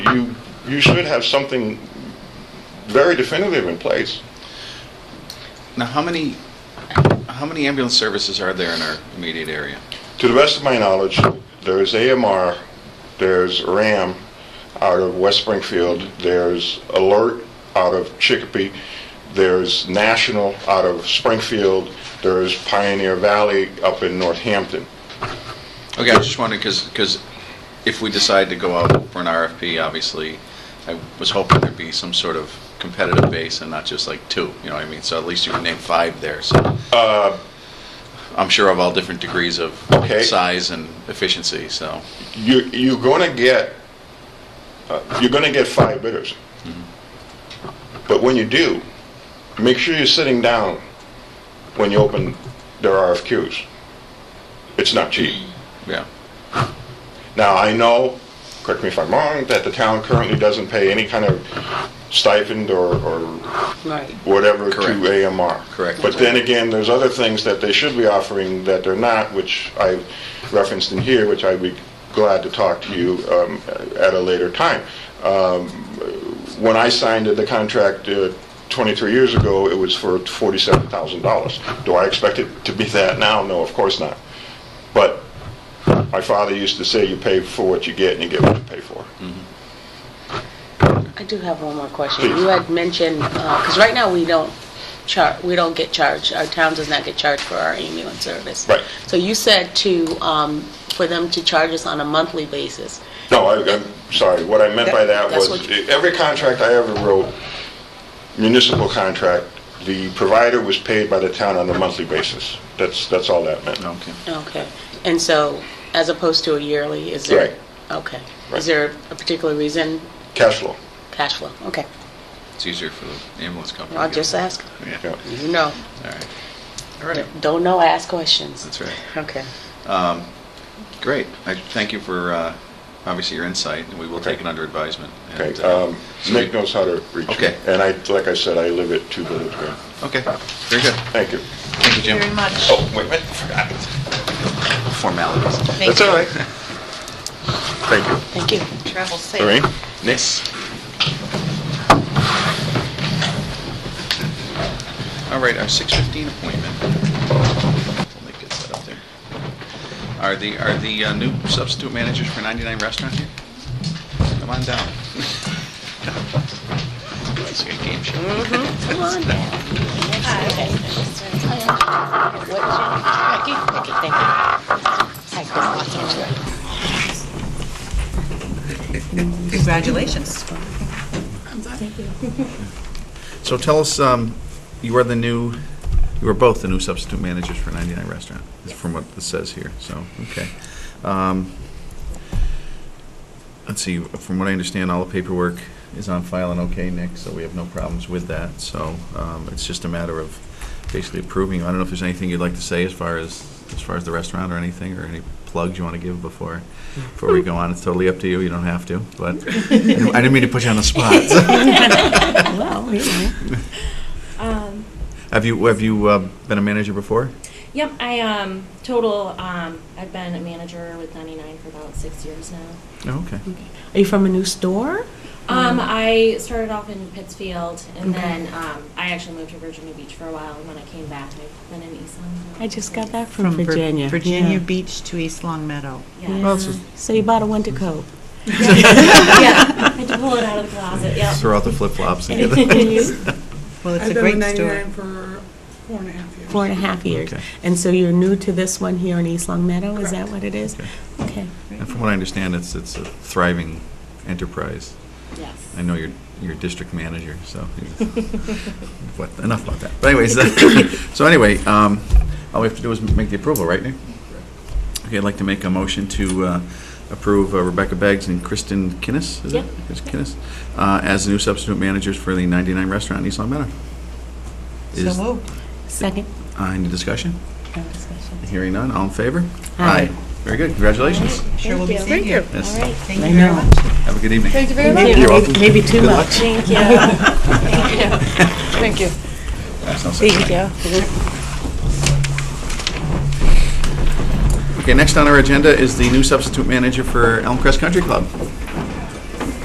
you, you should have something very definitive in place. Now, how many, how many ambulance services are there in our immediate area? To the best of my knowledge, there's AMR, there's RAM out of West Springfield, there's Alert out of Chicopee, there's National out of Springfield, there's Pioneer Valley up in Northampton. Okay, I was just wondering, because, if we decide to go out for an RFP, obviously, I was hoping there'd be some sort of competitive base and not just like two, you know what I mean? So at least you can name five there, so. I'm sure of all different degrees of Uh. Okay. size and efficiency, so. You, you're going to get, uh, you're going to get five bidders. But when you do, make sure you're sitting down when you open their RFQs. It's not cheap. Yeah, Now, I know, correct me if I'm wrong, that the town currently doesn't pay any kind of stipend or, or Right. whatever Correct. to AMR. Correct. But then again, there's other things that they should be offering that they're not, which I referenced in here, which I'd be glad to talk to you um, at a later time. Um, When I signed the contract uh, 23 years ago, it was for $47,000. Do I expect it to be that now? No, of course not. But my father used to say, you pay for what you get and you get what you pay for. Hmm. I do have one more question. Please. You had mentioned, because right now we don't char, we don't get charged, our town does not get charged for our ambulance service. Right. So you said to, um, for them to charge us on a monthly basis. No, I- I'm sorry, what I meant by that That- that's was, e-, what you- every contract I ever wrote, municipal contract, the provider was paid by the town on a monthly basis. That's, that's all that meant. okay. Okay. And so, as opposed to a yearly, is there? Right. Okay. Right. Is there a particular reason? Cash flow. Cash flow. Okay. It's easier for the ambulance company. to I'll get- just ask. Yeah, Yeah. You know, all right. All right, don't know, ask questions. that's right. Okay. Great. I thank you for, uh, obviously, your insight, and we will take Okay. it under advisement. Okay, And, uh, um, Nick knows how to reach me. Okay. And I, like I said, I live at Two Village Green. Okay, very good. Thank you. Thank you, Jim. very much. Oh, wait a minute, forgot. Formalities. Thank That's all right. Thank you. Thank you. you. Travel safe. Lorraine? Yes. All right, our 6:15 appointment. We'll make it set up there. Are the, are the uh, new substitute managers for 99 Restaurant here? Come on down. It's your game show. Come on. Okay. What, Jim? Becky? Okay, thank you. Hi, Chris Watson. Congratulations. So tell us, um, you are the new, you are both the new substitute managers for 99 Restaurant, is from what this says here, so, okay. Um, Let's see, from what I understand, all the paperwork is on file and okay, Nick, so we have no problems with that, so um, it's just a matter of basically approving. I don't know if there's anything you'd like to say as far as, as far as the restaurant or anything, or any plugs you want to give before, before we go on. It's totally up to you, you don't have to, but I didn't mean to put you on the spot. Well, you know. Um, Have you, have you uh, been a manager before? yep, I um, total. Um, I've been a manager with 99 for about six years now. Oh, okay. Are you from a new store? Um, I started off in Pittsfield, and Mm-hmm. Okay. then um, I actually moved to Virginia Beach for a while. And when I came back, I've been in East Long. Meadow. I just got that from, From Vir- Virginia. Virginia Yeah. Beach to East Long Meadow. Yeah. Well, it's just- So you bought a winter coat. yeah. I had to pull it out of the closet. Yep. Throw out the flip-flops and get Well, it's I've a been with great store. 99 for four and a half years. Four and a half years. Okay. And so you're new to this one here in East Long Meadow? Is that what it is? Okay. Okay. And from what I understand, it's, it's a thriving enterprise. Yes. I know you're, you're district manager, so, what, enough about that. But anyways, uh, so anyway, um, all we have to do is make the approval, right, Nick? Okay, I'd like to make a motion to uh, approve uh, Rebecca Beggs and Kristen Kinnis, is it? Yep. Is Kinnis, uh, as new substitute managers for the 99 Restaurant in East Long Meadow. Is- So moved. Second? uh, Any discussion? No discussion. Hearing none, all in favor? Aye. Very good, congratulations. Sure we'll be Thank seeing you. Yes. All right. Thank you very much. Have a good evening. Thank you very Thank You're you. welcome. Maybe too Good much. luck. Thank you. Thank you. Thank you. Okay, next on our agenda is the new substitute manager for Elm Crest Country Club.